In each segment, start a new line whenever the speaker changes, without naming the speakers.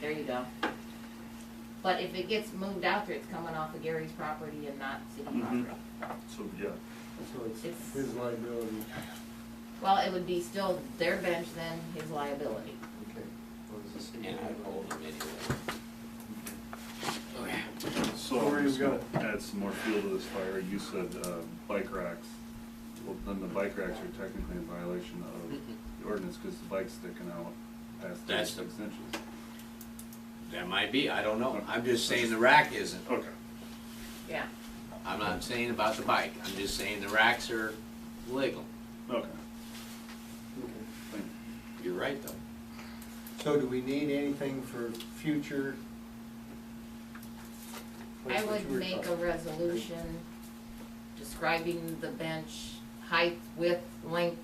there you go. But if it gets moved out there, it's coming off of Gary's property and not city
Mm-hmm.
Mhm.
property.
So, yeah,
So
It's-
it's his liability,
Well, it would be still their bench then, his liability.
okay. What is this?
And I told him anyway.
so
Where
I'm
you
just gonna
got
add some more fuel to this fire. You said, uh, bike racks. Well, then the bike racks are technically in violation of the ordinance, cause the bike's sticking out past
Mm-hmm. That's the-
thirty-six inches.
That might be, I don't know. I'm just saying the rack isn't.
Okay.
Yeah.
I'm not saying about the bike. I'm just saying the racks are legal.
Okay,
Okay.
thank you.
You're right, though.
So do we need anything for future?
I
That's what
would
you were
make a
talking-
resolution describing the bench, height, width, length,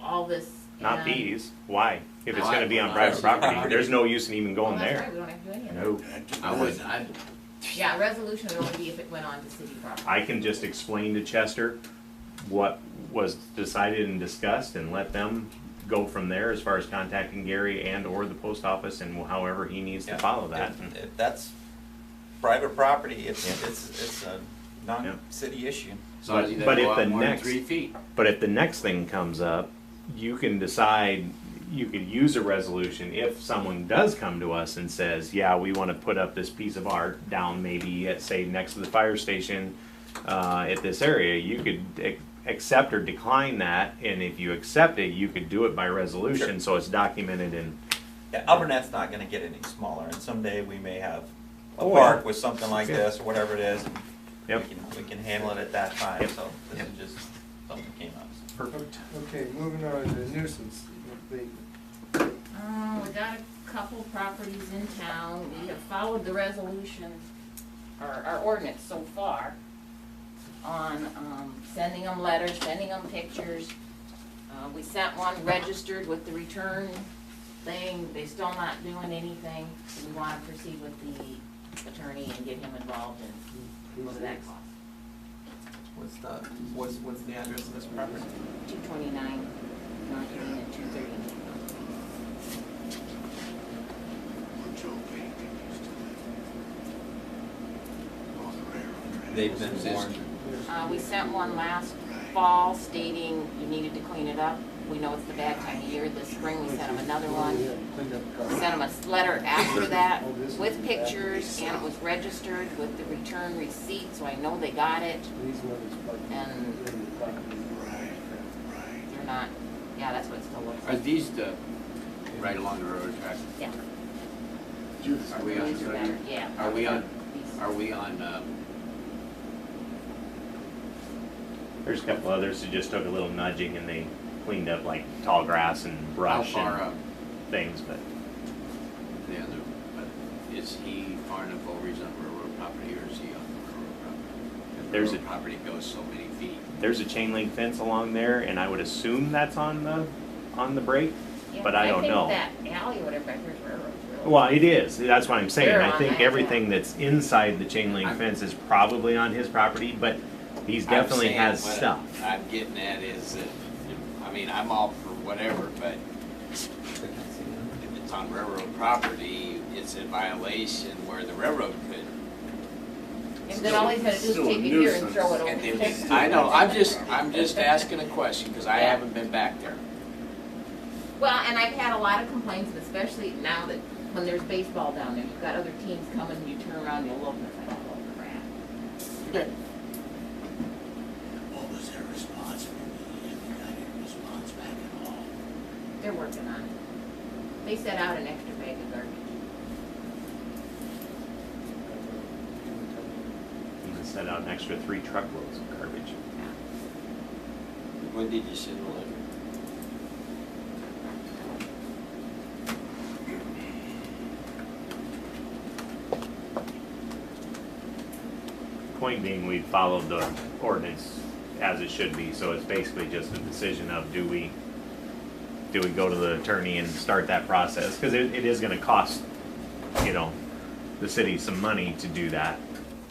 all this.
Not
and-
these. Why? If it's
Why?
gonna be on
Why?
private property,
Property.
there's no use in even
Well,
going
that's right,
there.
we don't have to do any of that.
No.
I wouldn't, I,
Yeah, a resolution would only be if it went on to city property.
I can just explain to Chester what was decided and discussed and let them go from there as far as contacting Gary and or the post office and however he needs to
Yeah.
follow that.
If- If that's private property, it's,
Yeah.
it's, it's a
Yeah.
non-city issue.
as long as he
But-
doesn't
but if
go
the
out more than
next-
three feet.
But if the next thing comes up, you can decide, you could use a resolution if someone does come to us and says, yeah, we wanna put up this piece of art down maybe at, say, next to the fire station, uh, at this area, you could ac- accept or decline that, and if you accept it, you could do it by resolution,
Sure.
so it's documented in,
Yeah, Albernette's not gonna get any smaller, and someday we may have a
Oh, yeah.
park with something like
Yeah.
this, or whatever it is. and
Yep.
We can, we can handle it at that time,
Yep.
so this
Yep.
is just something came up.
perfect.
Okay, moving on to nuisance abatement.
Uh, we got a couple properties in town, we have followed the resolution, or our ordinance so far, on, um, sending them letters, sending them pictures. Uh, we sent one registered with the return thing, they still not doing anything, so we wanna proceed with the attorney and get him involved and what does that cost?
What's the, Uh, what's, what's the address of this property?
Two twenty-nine, North Main and two thirty.
They've been
This-
warned.
Uh, we sent one last fall stating you needed to clean it up. We know it's the bad time of year. This spring, we sent them another one.
Cleaned up
Sent
car.
them a letter after that with pictures and it was registered with the return receipt, so I know they got it.
These ones like.
And- They're not, yeah, that's what it still looks
Are
like.
these the, right along the railroad track?
Yeah.
Are we
These are better,
on,
yeah.
are we on-
These.
are we on, um,
There's a couple others that just took a little nudging and they cleaned up like tall grass and
how
brush
far
and
up
things, but
the other, but is he far enough over, he's on railroad property or is he on the railroad property? If
There's a-
railroad Property goes so many feet.
there's a chain link fence along there, and I would assume that's on the, on the break.
Yeah,
but I don't know.
think that alley or whatever, I heard railroad. really-
Well, it is, that's what I'm saying,
They're
I
on
think
that, yeah.
everything that's inside the chain link fence is probably on his property, but he's
I'm
definitely
saying
has
what
stuff.
I'm getting at is that, I mean, I'm all for whatever, but if it's on railroad property, it's a violation where the railroad could.
And then all he's gonna do is
Still a
take it here and
nuisance.
throw it over.
And then, I know, I'm just, I'm just asking a question, because I haven't been back there.
Well, and I've had a lot of complaints, and especially now that when there's baseball down there, you've got other teams coming, and you turn around, and you look, and it's like, oh crap.
What was their response from the, if we got any response back at all?
They're working on it. They set out an extra bag of garbage.
He set out an extra three truckloads of garbage.
When did you send the letter?
Point being, we followed the ordinance as it should be, so it's basically just a decision of do we, do we go to the attorney and start that process? Because it, it is gonna cost, you know, the city some money to do that,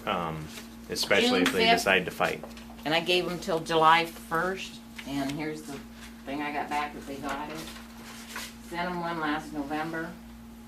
um, especially if they
June fifth.
decide to fight.
And I gave them till July first, and here's the thing I got back, that they got it. Sent them one last November.